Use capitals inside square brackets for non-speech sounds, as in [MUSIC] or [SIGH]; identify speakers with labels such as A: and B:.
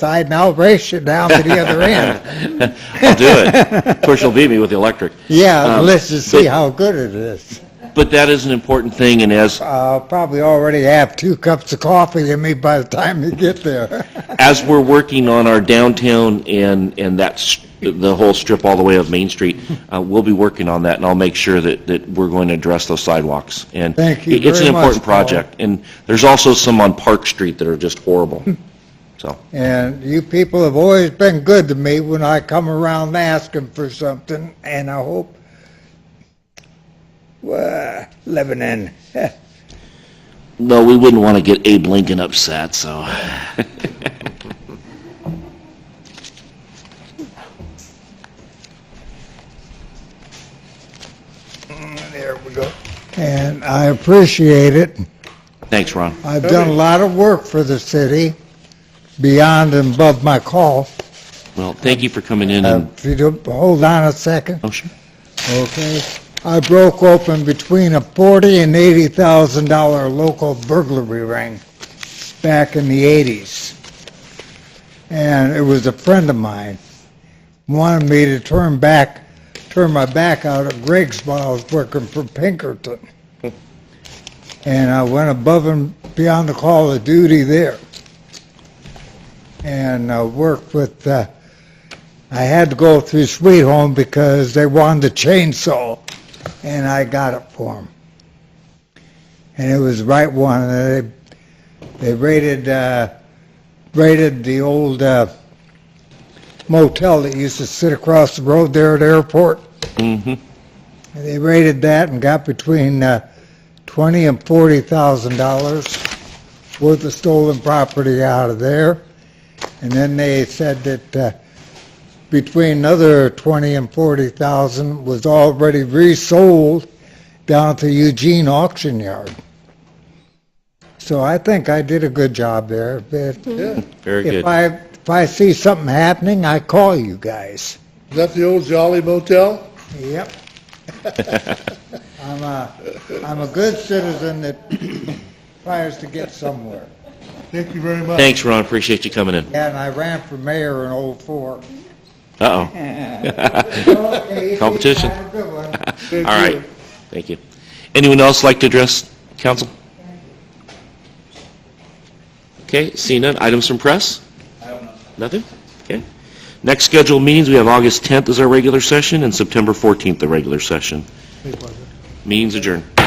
A: side malbration down to the other end.
B: I'll do it. Of course, you'll beat me with the electric.
A: Yeah,
B: Um,
A: let's just see how good it is.
B: But that is an important thing, and as,
A: I'll probably already have two cups of coffee in me by the time you get there.
B: as we're working on our downtown and, and that's the whole strip all the way of Main Street, uh, we'll be working on that, and I'll make sure that, that we're going to address those sidewalks. And
A: Thank you
B: it- It's an
A: very much,
B: important
A: Paul.
B: project, and there's also some on Park Street that are just horrible, so.
A: And you people have always been good to me when I come around asking for something, and I hope well, Lebanon. [LAUGHS]
B: No, we wouldn't want to get Abe Lincoln upset, so.
A: there we go. And I appreciate it.
B: Thanks, Ron.
A: I've done a lot of work for the city, beyond and above my call.
B: Well, thank you for coming in
A: Uh,
B: and,
A: If you don't, hold on a second,
B: oh, sure.
A: okay? I broke open between a forty and eighty thousand dollar local burglary ring back in the eighties. And it was a friend of mine, wanted me to turn back, turn my back out at Greg's while I was working for Pinkerton. And I went above and beyond the call of duty there. And uh, worked with, uh, I had to go through Sweet Home because they wanted the chainsaw, and I got it for them. And it was the right one. and They they raided uh, raided the old uh, motel that used to sit across the road there at the airport. And they raided that and got between uh, twenty and forty thousand dollars worth of stolen property out of there. And then they said that. Uh, between another 20 and 40,000 was already resold down to Eugene Auction Yard. So I think I did a good job there. but
B: Very
A: If
B: good.
A: I, if I see something happening, I call you guys.
C: Is that the old Jolly Motel?
A: Yep. [LAUGHS] I'm a, I'm a good citizen that tries to get somewhere.
C: Thank you very much.
B: Thanks, Ron, appreciate you coming in.
A: Yeah, and I ran for mayor in '04.
B: Uh-oh.
A: Okay,
B: [LAUGHS] Competition.
A: Have a good one.
B: All right, thank you. Anyone else like to address council? Okay, seeing none, items from press? Nothing? Okay. Next scheduled meetings, we have [LAUGHS] August 10th as our regular session and September 14th, the regular session. Meetings adjourned.